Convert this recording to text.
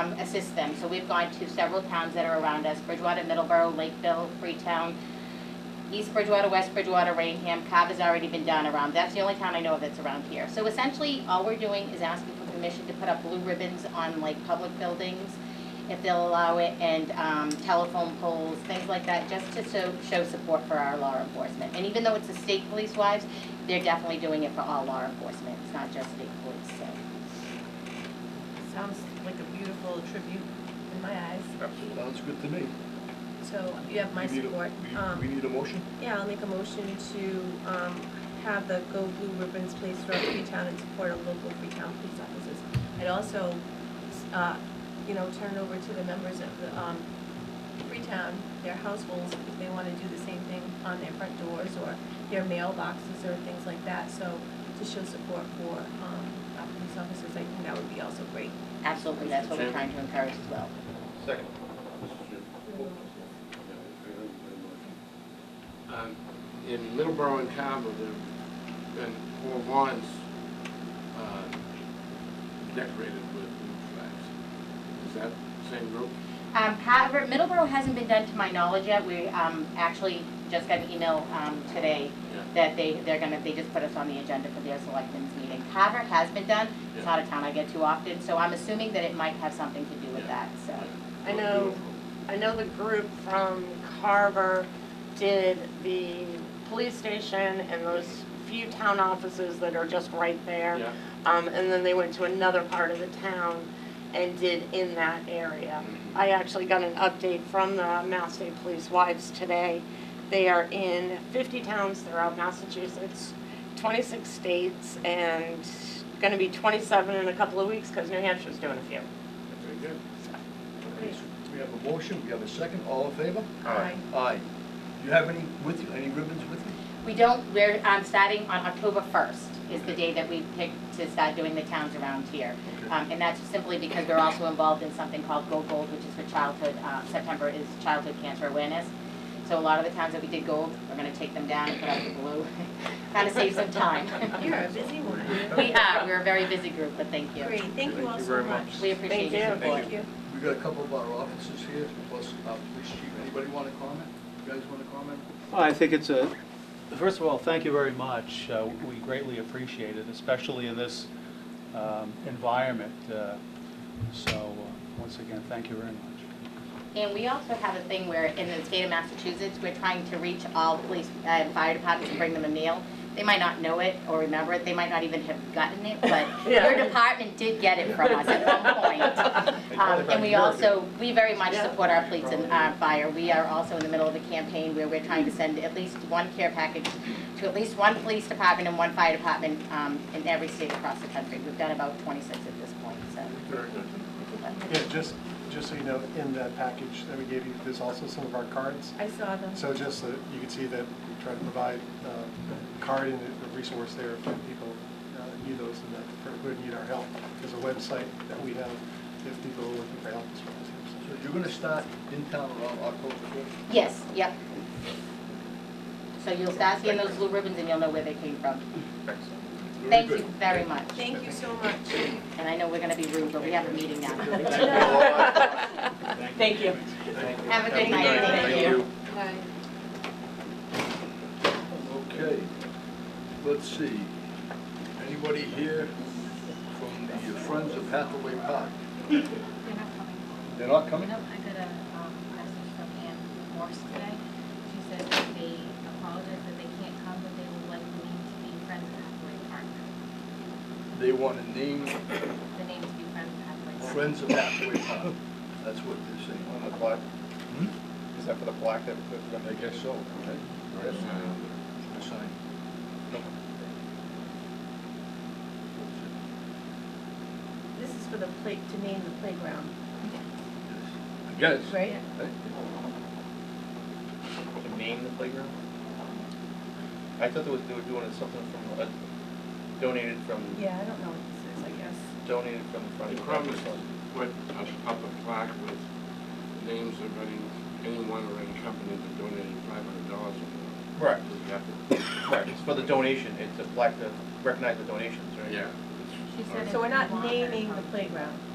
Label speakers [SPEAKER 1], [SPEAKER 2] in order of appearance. [SPEAKER 1] um, assist them. So we've gone to several towns that are around us, Bridgewater, Middleborough, Lakeville, Freetown, East Bridgewater, West Bridgewater, Rainham, Cobb has already been done around. That's the only town I know of that's around here. So essentially, all we're doing is asking for permission to put up blue ribbons on like public buildings, if they'll allow it, and um, telephone poles, things like that, just to so- show support for our law enforcement. And even though it's the state police wives, they're definitely doing it for all law enforcement. It's not just state police, so.
[SPEAKER 2] Sounds like a beautiful tribute in my eyes,
[SPEAKER 3] Sounds good to me.
[SPEAKER 2] so you have my
[SPEAKER 3] We need a-
[SPEAKER 2] support.
[SPEAKER 3] we-
[SPEAKER 2] Um,
[SPEAKER 3] We need a motion?
[SPEAKER 2] Yeah, I'll make a motion to um, have the Go Blue Ribbons placed throughout Freetown in support of local Freetown police officers. I'd also, uh, you know, turn over to the members of the um, Freetown, their households, if they want to do the same thing on their front doors or their mailboxes or things like that. So to show support for um, our police officers, I think that would be also great.
[SPEAKER 1] Absolutely, that's what we're trying to encourage as well.
[SPEAKER 4] Second.
[SPEAKER 5] Um, In Middleborough and Carver, there've been four lawns uh, decorated with blue flags. Is that same group?
[SPEAKER 1] Um, however, Middleborough hasn't been done to my knowledge yet. We, um, actually just got an email, um, today
[SPEAKER 5] Yeah.
[SPEAKER 1] that they, they're gonna, they just put us on the agenda for their selectmen's meeting. Carver has been done. It's
[SPEAKER 5] Yeah.
[SPEAKER 1] not a town I get to often, so I'm assuming that it might have something to do with
[SPEAKER 5] Yeah.
[SPEAKER 1] that, so.
[SPEAKER 6] I know, I know the group from Carver did the police station and those few town offices that are just right there.
[SPEAKER 5] Yeah,
[SPEAKER 6] Um, and then they went to another part of the town and did in that area. I actually got an update from the Mass State Police Wives today. They are in fifty towns throughout Massachusetts, twenty-six states, and gonna be twenty-seven in a couple of weeks, cause New Hampshire's doing a few.
[SPEAKER 5] very good.
[SPEAKER 2] Great.
[SPEAKER 3] We have a motion, we have a second, all in favor?
[SPEAKER 2] Aye.
[SPEAKER 3] Aye. Do you have any with you, any ribbons with you?
[SPEAKER 1] We don't, we're, um, starting on October first is the day that we picked to start doing the towns around here.
[SPEAKER 3] Okay.
[SPEAKER 1] Um, and that's simply because we're also involved in something called Go Gold, which is for childhood, uh, September is childhood cancer awareness. So a lot of the towns that we did gold, we're gonna take them down and put out the blue, kinda save some time.
[SPEAKER 2] You're a busy one.
[SPEAKER 1] We are, we're a very busy group, but thank you.
[SPEAKER 2] Great, thank you all so much.
[SPEAKER 1] We appreciate your
[SPEAKER 6] Thank you.
[SPEAKER 1] support.
[SPEAKER 2] Thank you.
[SPEAKER 3] We got a couple of our officers here, plus our police chief. Anybody want to comment? You guys want to comment?
[SPEAKER 7] I think it's a, first of all, thank you very much. Uh, We greatly appreciate it, especially in this um, environment. Uh, So, uh, once again, thank you very much.
[SPEAKER 1] And we also have a thing where in the state of Massachusetts, we're trying to reach all police and fire departments and bring them a meal. They might not know it or remember it, they might not even have gotten it, but your
[SPEAKER 6] Yeah.
[SPEAKER 1] department did get it from us at one point. Um, And we also, we very much support our police and our fire. We are also in the middle of a campaign where we're trying to send at least one care package to at least one police department and one fire department um, in every state across the country. We've done about 26 at this point, so.
[SPEAKER 8] Yeah, just, just so you know, in that package that we gave you, there's also some of our cards.
[SPEAKER 2] I saw them.
[SPEAKER 8] So just so that you can see that we try to provide uh, a card and a resource there for people uh, that need those and that, for- who need our help. There's a website that we have if people are looking for help as well.
[SPEAKER 3] So you're going to start in town around October first?
[SPEAKER 1] Yes, yep. So you'll start seeing those blue ribbons and you'll know where they came from. Thank you very much.
[SPEAKER 2] Thank you so much.
[SPEAKER 1] And I know we're gonna be rude, but we have a meeting now.
[SPEAKER 6] Thank you.
[SPEAKER 1] Have a good night, thank you.
[SPEAKER 2] Bye.
[SPEAKER 3] Okay, let's see. Anybody here from the Friends of Hathaway Park?
[SPEAKER 9] They're not coming.
[SPEAKER 3] They're not coming?
[SPEAKER 9] No, I got a um, message from Ann Morse today. She says that they apologize that they can't come, but they would like the name to be Friends of Hathaway Park.
[SPEAKER 3] They want to name
[SPEAKER 9] The name to be Friends of Hathaway Park.
[SPEAKER 3] Friends of Hathaway Park. That's what they're saying. Hmm?
[SPEAKER 4] On the plaque? Is that for the plaque that we put
[SPEAKER 3] I
[SPEAKER 4] on
[SPEAKER 3] guess so, right?
[SPEAKER 5] Very good.
[SPEAKER 3] The sign.
[SPEAKER 2] This is for the play, to name the playground,
[SPEAKER 3] I guess.
[SPEAKER 2] right?
[SPEAKER 4] To name the playground? I thought they were, they were doing something from, uh, donated from,
[SPEAKER 2] Yeah, I don't know what this is, I guess.
[SPEAKER 4] donated from the front.
[SPEAKER 5] The Crummers put up- up a plaque with names of any, anyone or any company that donated five hundred dollars or more.
[SPEAKER 4] Right.
[SPEAKER 5] We have to-
[SPEAKER 4] Right, it's for the donation, it's a plaque to recognize the donations, right?
[SPEAKER 5] Yeah.
[SPEAKER 9] She said
[SPEAKER 2] So we're
[SPEAKER 9] if you
[SPEAKER 2] not
[SPEAKER 9] want her to
[SPEAKER 2] naming the
[SPEAKER 9] come.
[SPEAKER 2] playground.